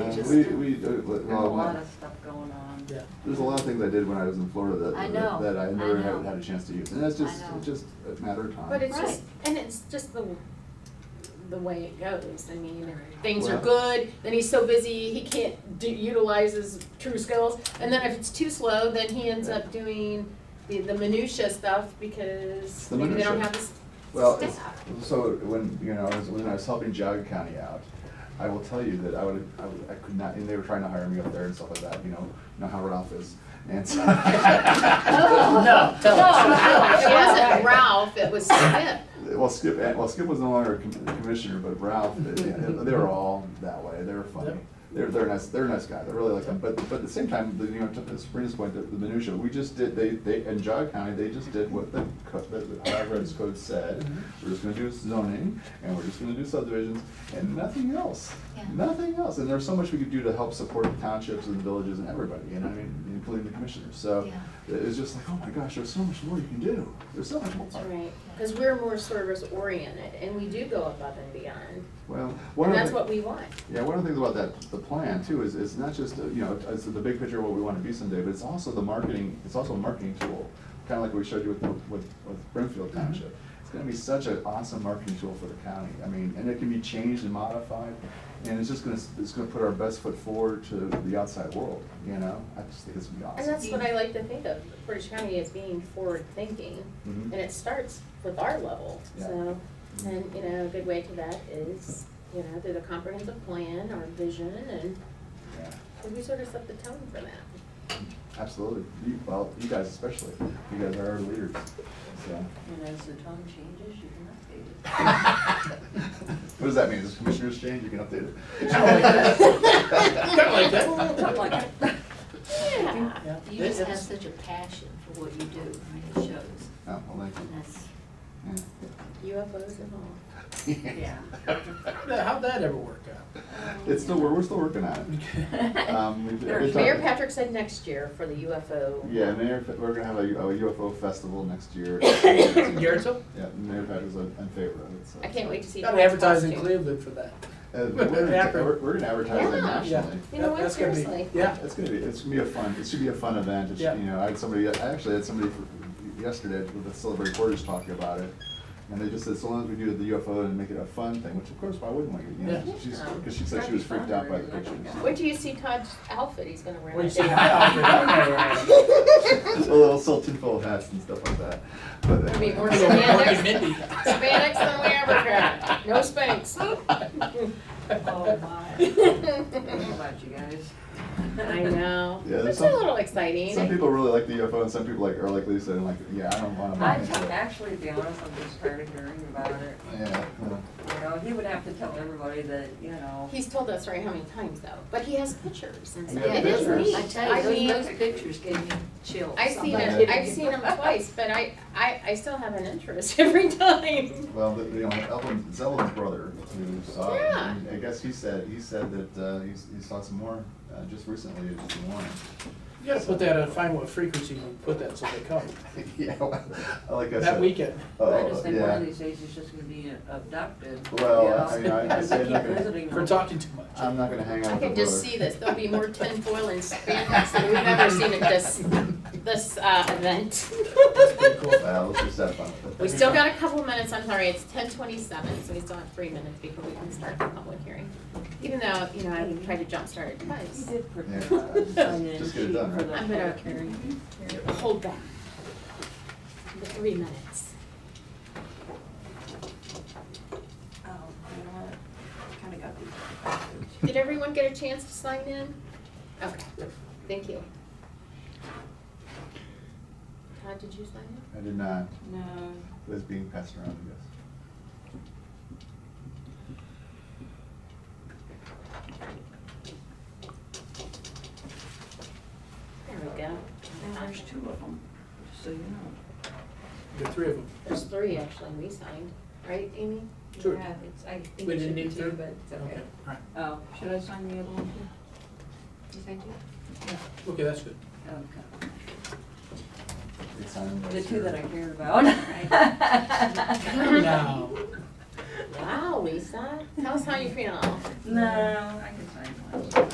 We, we, uh, but, There's a well, lot my- of stuff going on. Yeah. there's a lot of things I did when I was in Florida I that, know, that- that I I never know. had, had a chance to use, and that's I just, know. it's just a matter of time. But it's just, Right. and it's just the, the way it goes, I mean, if things are Well- good, then he's so busy, he can't do, utilize his true skills, and then if it's too slow, then he ends up doing the, the minutia stuff because The maybe they don't minutia. have the s- Well, it's, staff. so when, you know, I was- when I was helping Jogga County out, I will tell you that I would, I would, I could not, and they were trying to hire me up there and stuff like that, you know, you know how Ralph is, and so. No, No, tell no, us. it wasn't Ralph, it was Skip. Well, Skip, well, Skip was no longer a com- commissioner, but Ralph, they they were all that way, they were funny. Yep. They're, they're nice, they're nice guys, I really like them, but, but at the same time, the, you know, to Sabrina's point, the the minutia, we just did, they, they, in Jog County, they just did what the, co- the- the Highway Code said. We're just gonna do zoning, and we're just gonna do subdivisions, and nothing else. Yeah. Nothing else, and there's so much we could do to help support the townships and the villages and everybody, you know, what I mean, including the commissioners, so. Yeah. It was just like, oh my gosh, there's so much more you can do, there's so much more. That's right, because we're more service oriented, and we do go above and beyond, Well, one and of the. that's what we want. Yeah, one of the things about that, the plan too, is it's not just, uh, you know, it's the big picture of what we wanna be someday, but it's also the marketing, it's also a marketing tool. Kinda like we showed you with, with, with Brimfield Mm-hmm. Township. It's gonna be such an awesome marketing tool for the county. I mean, and it can be changed and modified, and it's just gonna, it's gonna put our best foot forward to the outside world, you know? I just think it's gonna be And awesome. that's what I like to think of Portage County as being forward-thinking, Mhm. and it starts with our level, Yeah. so. And, you know, a good way to that is, you know, through the comprehensive plan or vision, and Yeah. and we sort of set the tone for that. Absolutely. You, well, you guys especially. You guys are our leaders, so. And as the tone changes, you can update What does that mean? Does commissioners change? You can update it. Kinda like that. it. Something like that. Yeah. Yeah, You this just have is- such a passion for what you do, I mean, it shows, Oh, well, thank you. and that's, UFOs and all. Yeah. Yeah, How'd that ever work out? It's still, we're, we're still working on it. Um, we- we talked- Mayor Patrick said next year for the UFO. Yeah, Mayor, Fa- we're gonna have a U- a UFO festival next year. Garrettsville? Yeah, Mayor Patrick's in in favor of it, so. I can't wait to see. Got Paul's advertising costume. Cleveland for that. Uh, we're gonna- We're, we're gonna advertise it Yeah. nationally. You know That- what, that's gonna be- seriously. Yeah. It's gonna be, it's gonna be a fun, it should be a fun event, it Yeah. should, you know, I had somebody, I actually had somebody for- yesterday with the Celebrate Borders talking about it. And they just said, so long as we do the UFO and make it a fun thing, which of course, why wouldn't we, you know, Yeah. she's, cause she said she was freaked out by the pictures. Wait till you see Todd's outfit he's gonna wear. When you that say day. hi, I'll do that. A little silted full of hats and stuff like that, but. I mean, I'm we're gonna go Morgan Hispanics, Mindy. Hispanics than we ever got, no spanks. oh my, How about you guys. I know, Yeah, it's a some- little exciting. Some people really like the UFO and some people like, are like Lisa and like, yeah, I don't want to. I'm t- actually, to be honest, I'm just tired of hearing about it. Yeah, uh, You know, he would have to tell everybody that, you know, He's told us right how many times though, but he has pictures and stuff. Yeah, It is pictures. neat. I tell you, mean, those, those pictures gave me chills. I've seen I'm not him, kidding I've you. seen him twice, but I, I, I still have an interest every time. well, the- you know, Evelyn, it's Evelyn's brother who saw it. Yeah. and I guess he said, he said that, uh, he's, he saw some more, uh, just recently, in Des Moines. You gotta put that, on- find what frequency you put that so they come. Yeah, like I said. That weekend. I Oh, just think one yeah. of these days he's just gonna be abducted. you Well, know, I Um, mean, I- I because say they keep that- visiting For him. talking too much. I'm not gonna hang I out with the brother. can just see this, there'll be more tinfoil and spanks than we've ever seen at this, this, uh, event. Pretty cool. Well, let's just have fun. with it. We still got a couple minutes, I'm sorry, it's ten twenty-seven, so we still have three minutes before we can start the public hearing. Even though, you know, I tried to jumpstart it He twice. did Yeah, prepare a just- sign-in just get it sheet done, for right? the I'm gonna public hearing. hold back. The three minutes. Oh, you know what? Kinda got these. Did everyone get a chance to sign in? Okay, thank you. Todd, did you sign in? I did not, No, it was being passed around, I guess. There we go. and there's two of them, just so you know. The three of them. There's three actually, we signed, right, Amy? Sure. Yeah, it's, I think We it didn't should be need two, to? but it's Okay, okay. all right. Oh, should I sign the other one too? You signed two? Okay, that's good. Oh, Okay. They signed it The last two year. that I cared about. Now, Wow, Lisa, tell us how you feel. No, I can sign one.